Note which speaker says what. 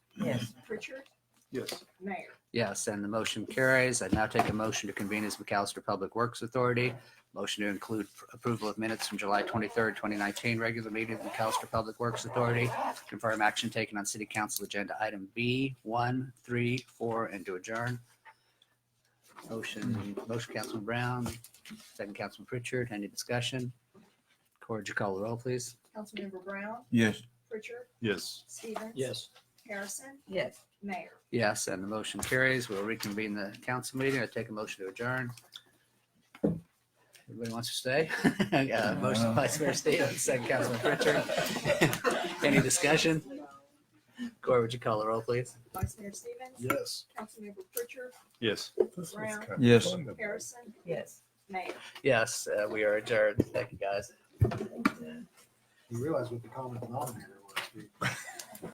Speaker 1: Richard,
Speaker 2: Yes.
Speaker 1: Mayor.
Speaker 3: Yes, and the motion carries. I now take a motion to convene as McAllister Public Works Authority. Motion to include approval of minutes from July 23rd, 2019, regular meeting of McAllister Public Works Authority. Confirm action taken on City Council Agenda Item B, 1, 3, 4, and to adjourn. Motion, motion Councilman Brown, second Councilman Pritchard. Any discussion? Corge, you call the roll, please.
Speaker 1: Councilmember Brown,
Speaker 4: Yes.
Speaker 1: Pritchard,
Speaker 2: Yes.
Speaker 1: Stevens.
Speaker 4: Yes.
Speaker 1: Harrison,
Speaker 5: yes.
Speaker 1: Mayor.
Speaker 3: Yes, and the motion carries. We'll reconvene the council meeting. I take a motion to adjourn. Everybody wants to stay? Uh, Motion by Vice Mayor Stevens, second Councilman Pritchard. Any discussion? Corey, would you call the roll, please?
Speaker 1: Vice Mayor Stevens.
Speaker 2: Yes.
Speaker 1: Councilmember Pritchard,
Speaker 2: Yes.
Speaker 1: Brown,
Speaker 4: Yes.
Speaker 1: Harrison,
Speaker 5: Yes.
Speaker 1: Mayor.
Speaker 3: Yes, uh, we are adjourned. Thank you, guys.
Speaker 2: You realize what the common denominator was.